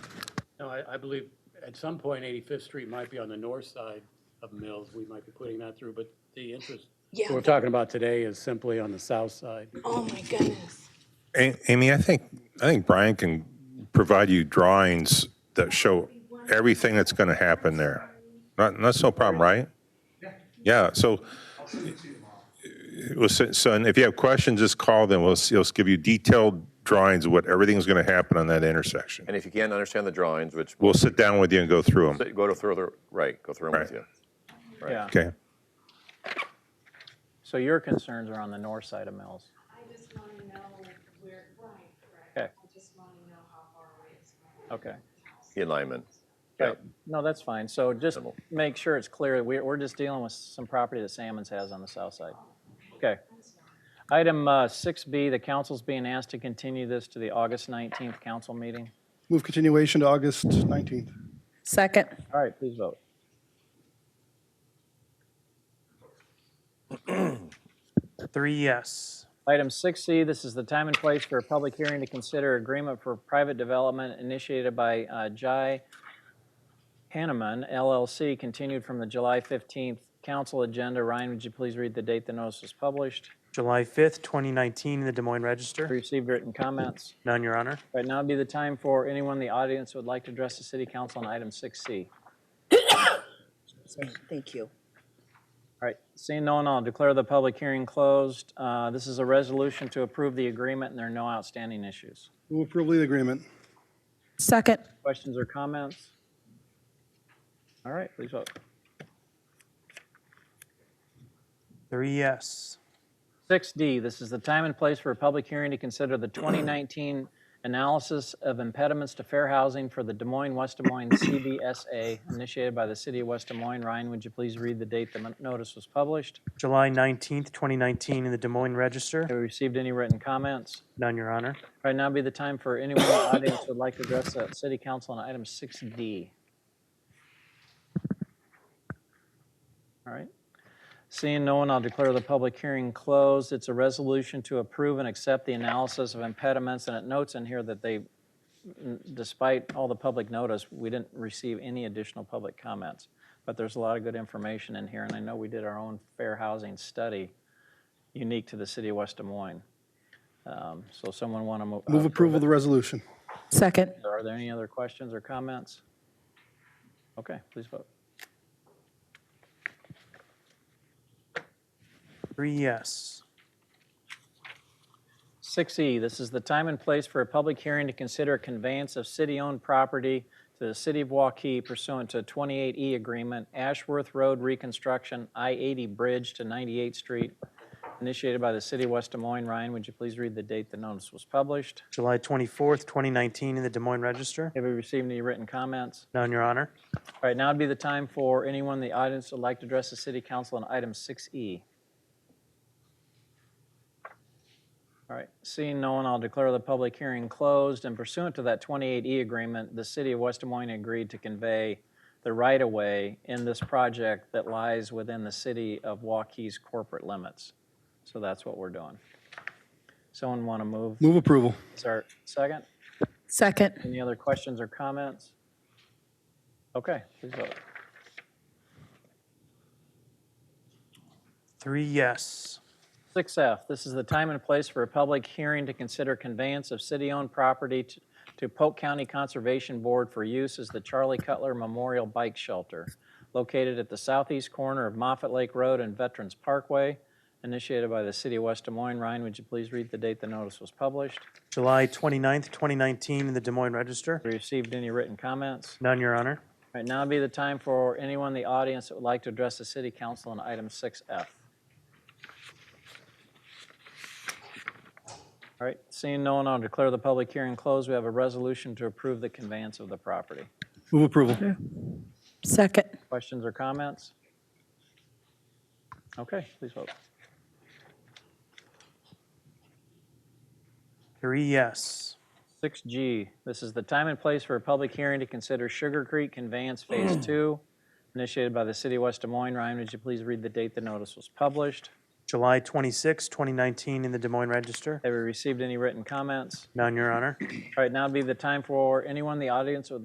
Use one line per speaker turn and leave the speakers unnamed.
I, I believe at some point 85th Street might be on the north side of Mills. We might be putting that through, but the interest, what
Yeah,
we're talking about today is simply on the south side.
oh my goodness.
A- Amy, I think, I think Brian can provide you drawings that show everything that's going to happen there. Not- That's no problem, right? Yeah, so, well, so- so and if you have questions, just call them. We'll, s- he'll give you detailed drawings of what everything's going to happen on that intersection.
And if you can't understand the drawings, which,
We'll sit down with you and go through them,
go to through the, right, go through them with
Right.
you.
Yeah,
okay?
so your concerns are on the north side of Mills.
I just want to know where, right, correct?
Okay,
I just want to know how far away it's from.
okay.
The alignment. Yeah.
Right. No, that's fine. So just make sure it's clear, we're, we're just dealing with some property that Salmons has on the south side. Okay. Item uh, 6B, the council's being asked to continue this to the August 19th council meeting.
Move continuation to August 19th.
Second.
All right, please vote.
Three yes.
Item 6C, this is the time and place for a public hearing to consider agreement for private development initiated by uh, Jai Hanneman LLC, continued from the July 15th council agenda. Ryan, would you please read the date the notice was published?
July 5th, 2019, in the Des Moines Register.
Received written comments.
None, Your Honor.
Right now would be the time for anyone in the audience who would like to address the city council on item 6C.
Thank you.
All right, seeing no one, I'll declare the public hearing closed. Uh, This is a resolution to approve the agreement, and there are no outstanding issues.
Move approval of the agreement.
Second.
Questions or comments? All right, please vote.
Three yes.
6D, this is the time and place for a public hearing to consider the 2019 analysis of impediments to fair housing for the Des Moines, West Des Moines CBSA initiated by the city of West Des Moines. Ryan, would you please read the date the mon- notice was published?
July 19th, 2019, in the Des Moines Register.
Have we received any written comments?
None, Your Honor.
Right now would be the time for anyone in the audience who would like to address the city council on item 6D. All right. Seeing no one, I'll declare the public hearing closed. It's a resolution to approve and accept the analysis of impediments, and it notes in here that they, despite all the public notice, we didn't receive any additional public comments. But there's a lot of good information in here, and I know we did our own fair housing study unique to the city of West Des Moines. Um, So someone want to move?
Move approval of the resolution.
Second.
Are there any other questions or comments? Okay, please vote.
Three yes.
6E, E, this is the time and place for a public hearing to consider conveyance of city-owned property to the city of Waukee pursuant to a 28E agreement, Ashworth Road reconstruction, I-80 Bridge to 98th Street, initiated by the city of West Des Moines. Ryan, would you please read the date the notice was published?
July 24th, 2019, in the Des Moines Register.
Have we received any written comments?
None, Your Honor.
All right, now would be the time for anyone in the audience who would like to address the city council on item E. 6E. All right, seeing no one, I'll declare the public hearing closed, and pursuant to that 28E agreement, the city of West Des Moines agreed to convey the right-of-way in this project that lies within the city of Waukees corporate limits. So that's what we're doing. Someone want to move?
Move approval.
Start second?
Second.
Any other questions or comments? Okay, please vote.
Three yes.
6F, this is the time and place for a public hearing to consider conveyance of city-owned property t- to Polk County Conservation Board for use as the Charlie Cutler Memorial Bike Shelter, located at the southeast corner of Moffett Lake Road and Veterans Parkway, initiated by the city of West Des Moines. Ryan, would you please read the date the notice was published?
July 29th, 2019, in the Des Moines Register.
Have you Received any written comments?
None, Your Honor.
All Right now would be the time for anyone in the audience that would like to address the city council on item 6F. All right, seeing no one, I'll declare the public hearing closed. We have a resolution to approve the conveyance of the property.
Move approval.
Second.
Questions or comments? Okay, please vote.
Three yes.
6G, this is the time and place for a public hearing to consider Sugar Creek Conveyance Phase 2, initiated by the city of West Des Moines. Ryan, would you please read the date the notice was published?
July 26th, 2019, in the Des Moines Register.
Have we received any written comments?
None, Your Honor.
All right, now would be the time for anyone in the audience who would